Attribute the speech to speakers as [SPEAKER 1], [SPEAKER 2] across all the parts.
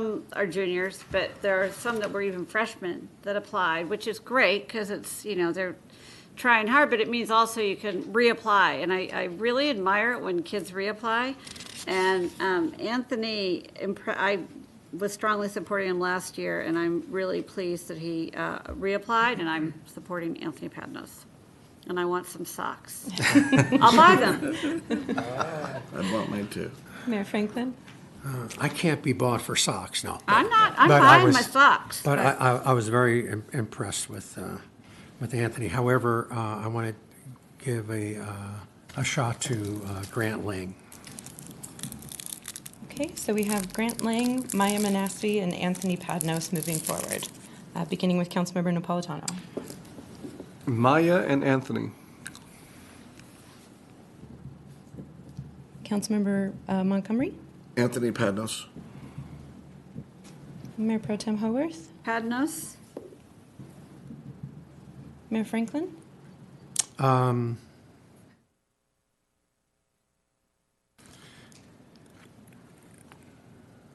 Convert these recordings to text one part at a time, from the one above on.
[SPEAKER 1] Some are juniors, but there are some that were even freshmen that applied, which is great because it's, you know, they're trying hard, but it means also you can reapply. And I, I really admire it when kids reapply. And um, Anthony, impre- I was strongly supporting him last year, and I'm really pleased that he uh, reapplied, and I'm supporting Anthony Padnos. And I want some socks. I'll buy them.
[SPEAKER 2] I'd want mine too.
[SPEAKER 3] Mayor Franklin?
[SPEAKER 4] I can't be bought for socks, no.
[SPEAKER 1] I'm not, I'm
[SPEAKER 4] But I
[SPEAKER 1] buying
[SPEAKER 4] was-
[SPEAKER 1] my socks.
[SPEAKER 4] But I, I, I was very im- impressed with, uh, with Anthony. However, uh, I want to give a, uh, a shot to uh, Grant Lang.
[SPEAKER 3] Okay, so we have Grant Lang, Maya Manassi, and Anthony Padnos moving forward, uh, beginning with Councilmember Napolitano.
[SPEAKER 5] Maya and Anthony.
[SPEAKER 3] Councilmember uh, Montgomery,
[SPEAKER 2] Anthony Padnos.
[SPEAKER 3] Mayor Pro Tem Haworth,
[SPEAKER 1] Padnos?
[SPEAKER 3] Mayor Franklin,
[SPEAKER 4] Um,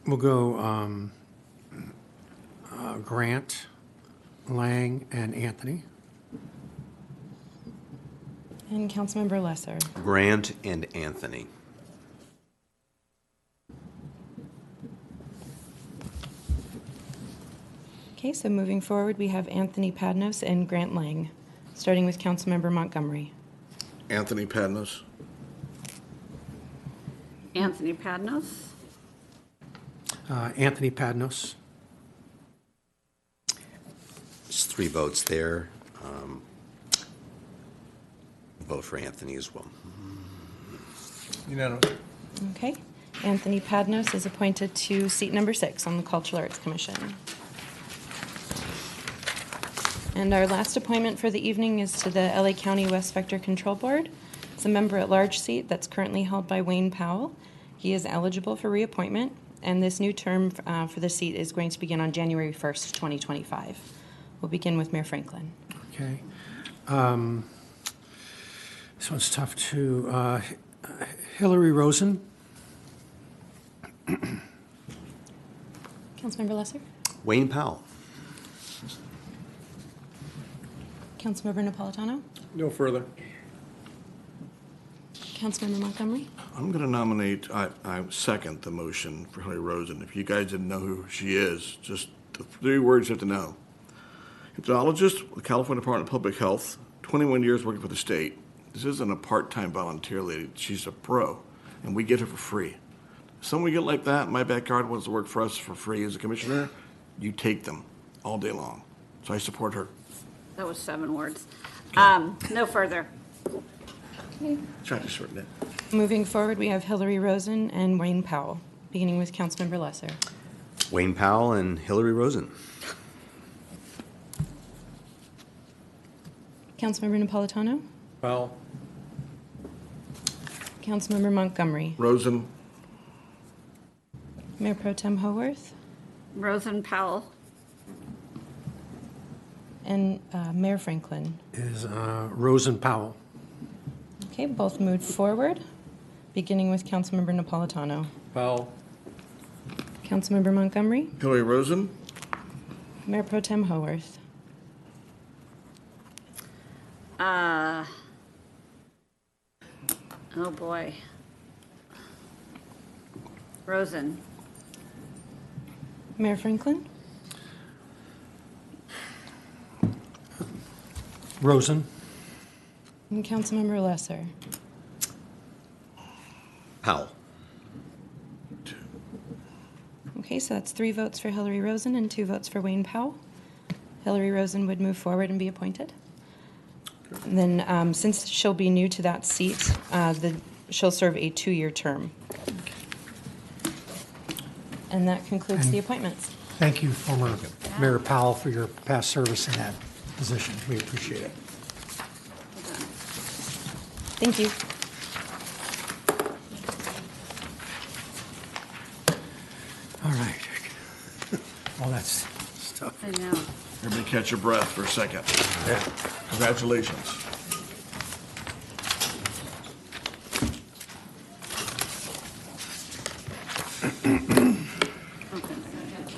[SPEAKER 4] We'll go um, uh, Grant, Lang, and Anthony.
[SPEAKER 3] and Councilmember Lesser.
[SPEAKER 6] Grant and Anthony.
[SPEAKER 3] Okay, so moving forward, we have Anthony Padnos and Grant Lang, starting with Councilmember Montgomery.
[SPEAKER 2] Anthony Padnos.
[SPEAKER 1] Anthony Padnos?
[SPEAKER 4] Uh, Anthony Padnos.
[SPEAKER 6] It's three votes there. Um, Vote for Anthony as well.
[SPEAKER 5] Unanimous.
[SPEAKER 3] Okay, Anthony Padnos is appointed to seat number six on the Cultural Arts Commission. And our last appointment for the evening is to the LA County West Vector Control Board. It's a member-at-large seat that's currently held by Wayne Powell. He is eligible for reappointment, and this new term uh, for the seat is going to begin on January 1st, 2025. We'll begin with Mayor Franklin.
[SPEAKER 4] Okay. Um, This one's tough too. Uh, Hillary Rosen,
[SPEAKER 3] Councilmember Lesser?
[SPEAKER 6] Wayne Powell.
[SPEAKER 3] Councilmember Napolitano?
[SPEAKER 5] No further.
[SPEAKER 3] Councilmember Montgomery?
[SPEAKER 2] I'm going to nominate, I, I second the motion for Hillary Rosen. If you guys didn't know who she is, just the three words you have to know. Hypnologist with California Department of Public Health, 21 years working for the state. This isn't a part-time volunteer lady. She's a pro, and we get her for free. Someone we get like that in my backyard wants to work for us for free as a commissioner, you take them all day long. So I support her.
[SPEAKER 1] That was seven words. Um, no further.
[SPEAKER 2] Try to shorten it.
[SPEAKER 3] Moving forward, we have Hillary Rosen and Wayne Powell, beginning with Councilmember Lesser.
[SPEAKER 6] Wayne Powell and Hillary Rosen.
[SPEAKER 3] Councilmember Napolitano,
[SPEAKER 5] Powell.
[SPEAKER 3] Councilmember Montgomery,
[SPEAKER 2] Rosen,
[SPEAKER 3] Mayor Pro Tem Haworth,
[SPEAKER 1] Rosen Powell.
[SPEAKER 3] and uh, Mayor Franklin.
[SPEAKER 4] is uh, Rosen Powell.
[SPEAKER 3] Okay, both moved forward, beginning with Councilmember Napolitano,
[SPEAKER 5] Powell.
[SPEAKER 3] Councilmember Montgomery,
[SPEAKER 2] Hillary Rosen,
[SPEAKER 3] Mayor Pro Tem Haworth,
[SPEAKER 1] Uh, oh boy. Rosen.
[SPEAKER 3] Mayor Franklin,
[SPEAKER 4] Rosen,
[SPEAKER 3] and Councilmember Lesser.
[SPEAKER 6] Powell.
[SPEAKER 3] Okay, so that's three votes for Hillary Rosen and two votes for Wayne Powell. Hillary Rosen would move forward and be appointed. And then, um, since she'll be new to that seat, uh, the, she'll serve a two-year term. And that concludes the appointments.
[SPEAKER 4] thank you, former Mayor Powell, for your past service in that position. We appreciate it.
[SPEAKER 3] Thank you.
[SPEAKER 4] All right. All that's stuff.
[SPEAKER 1] I know.
[SPEAKER 2] everybody catch your breath for a second. Congratulations.